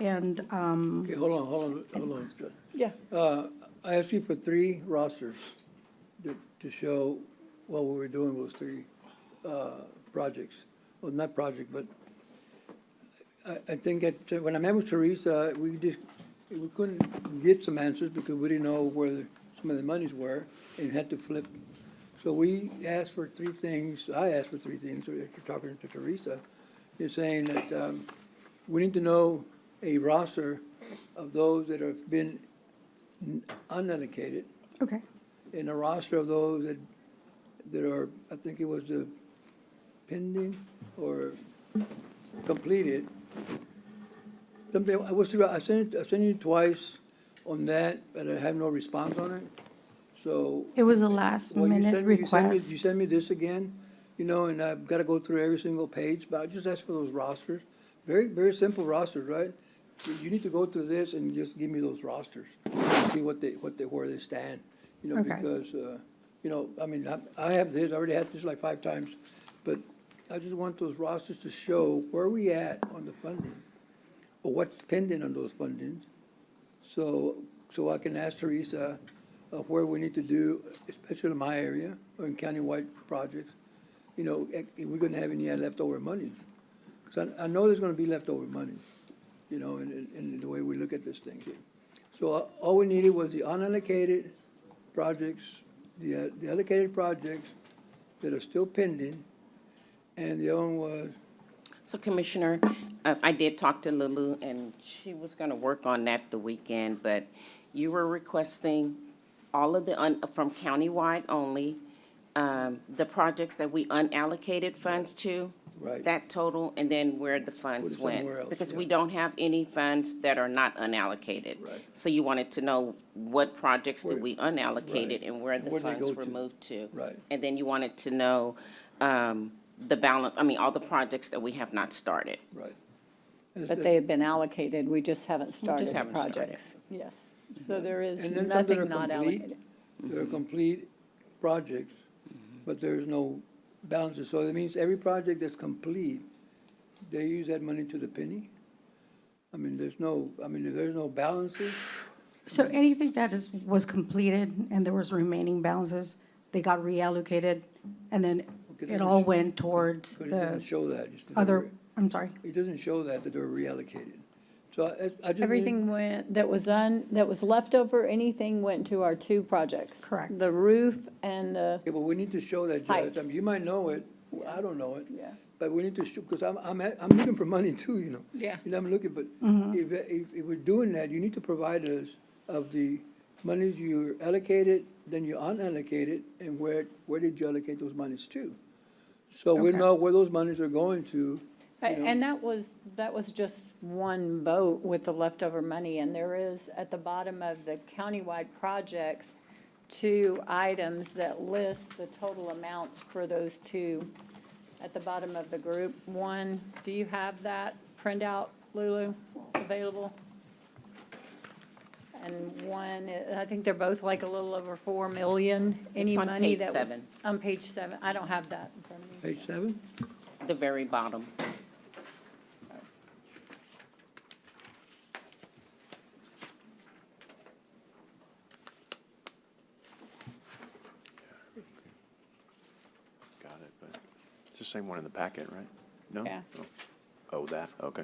and, um, Okay, hold on, hold on, hold on. yeah, Uh, I asked you for three rosters to, to show what we were doing with three, uh, projects. Well, not project, but I, I think that, uh, when I met with Teresa, we just, we couldn't get some answers because we didn't know where some of the monies were and had to flip. So we asked for three things, I asked for three things, after talking to Teresa, you're saying that, um, we need to know a roster of those that have been unallocated okay, in a roster of those that, that are, I think it was the pending or completed. Something, I was, I sent, I sent you twice on that, but I have no response on it, so. it was a last Well, you minute send me- you send me- You request. send me this again, you know, and I've got to go through every single page, but I just ask for those rosters. Very, very simple rosters, right? You- You need to go through this and just give me those rosters, see what they, what they, where they stand, you know, Okay. because, uh, you know, I mean, I, I have this, I already had this like five times, but I just want those rosters to show where we at on the funding, or what's pending on those fundings, so, so I can ask Teresa of where we need to do, especially in my area, or in countywide projects, you know, if if we're gonna have any leftover money. Because I, I know there's gonna be leftover money, you know, in, in- in the way we look at this thing here. So uh, all we needed was the unallocated projects, the, uh, the allocated projects that are still pending, and the other one was, So Commissioner, uh, I did talk to Lulu, and she was going to work on that the weekend, but you were requesting all of the, un- from countywide only, um, the projects that we unallocated funds to. Right. That total, and then where the funds Put it went. somewhere else, Because yeah. we don't have any funds that are not unallocated. Right. So you wanted to know what projects Where- that we unallocated and where the Where'd they funds go were to? moved to. Right. And then you wanted to know um, the balance, I mean, all the projects that we have not started. right. But they have been allocated, we just haven't started the haven't started. projects. Yes, so there is And then some that are nothing not complete, allocated. they're complete projects, but there's no balances. So that means every project that's complete, they use that money to the penny? I mean, there's no, I mean, if there's no balances, So anything that is, was completed and there was remaining balances, they got reallocated, and then Okay, it that all is- went towards but it doesn't the show that. It's- other, I'm sorry, It doesn't show that, that they're reallocated. So I, I just. need- Everything went, that was un, that was left over, anything went to our two projects. Correct. The roof and the, Yeah, but we need to show that, Judge. I Pipes. mean, you might know it, I don't know it. Yeah. But we need to show, because I'm, I'm, at- I'm looking for money too, you know? Yeah. You know, I'm looking, but if, if, if we're doing that, you need to provide us of the monies you allocated, then you unallocated, and where, where did you allocate those monies to? So we Okay. know where those monies are going to. know. and that was, that was just one vote with the leftover money. And there is, at the bottom of the countywide projects, two items that list the total amounts for those two at the bottom of the group. One, do you have that printout, Lulu, available? And one, i- I think they're both like a little over 4 million, any It's on money page that. w- seven. On page seven. I don't have that in front of me. Page seven? the very bottom. Got it, but it's the same one in the packet, right? No? Yeah. Oh. Oh, that, okay.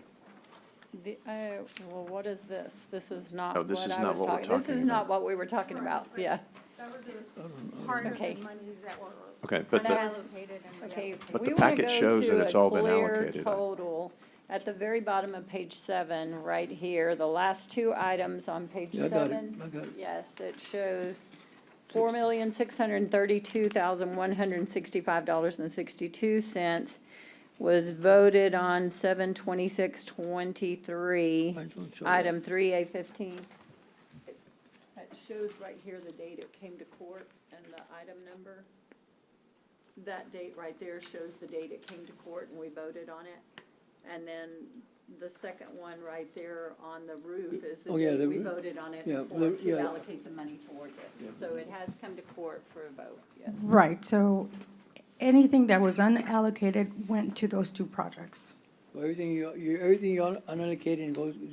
The, oh, well, what is this? This is not No, what I this was is not what we're talking, this talking is about. not what we were talking about, yeah. That was a part of Okay. the monies that were. Okay, but the- unallocated and Okay. reallocated. But we the wanna go packet shows that to it's a all been clear allocated. Total, at the very bottom of page seven, right here, the last two items on page Yeah, I got it, seven. I got it. Yes, it shows four million, six hundred and thirty-two thousand, one hundred and sixty-five dollars and sixty-two cents was voted on seven twenty-six twenty-three, Mine don't show that. item three A fifteen. It shows right here the date it came to court and the item number. That date right there shows the date it came to court and we voted on it. And then the second one right there on the roof is the Oh, yeah, date the we roo- voted on it yeah, for, the- to yeah. allocate the money towards it. So it has come to court for a vote, yes. right, so anything that was unallocated went to those two projects. So Everything you, you, everything you unallocated goes, is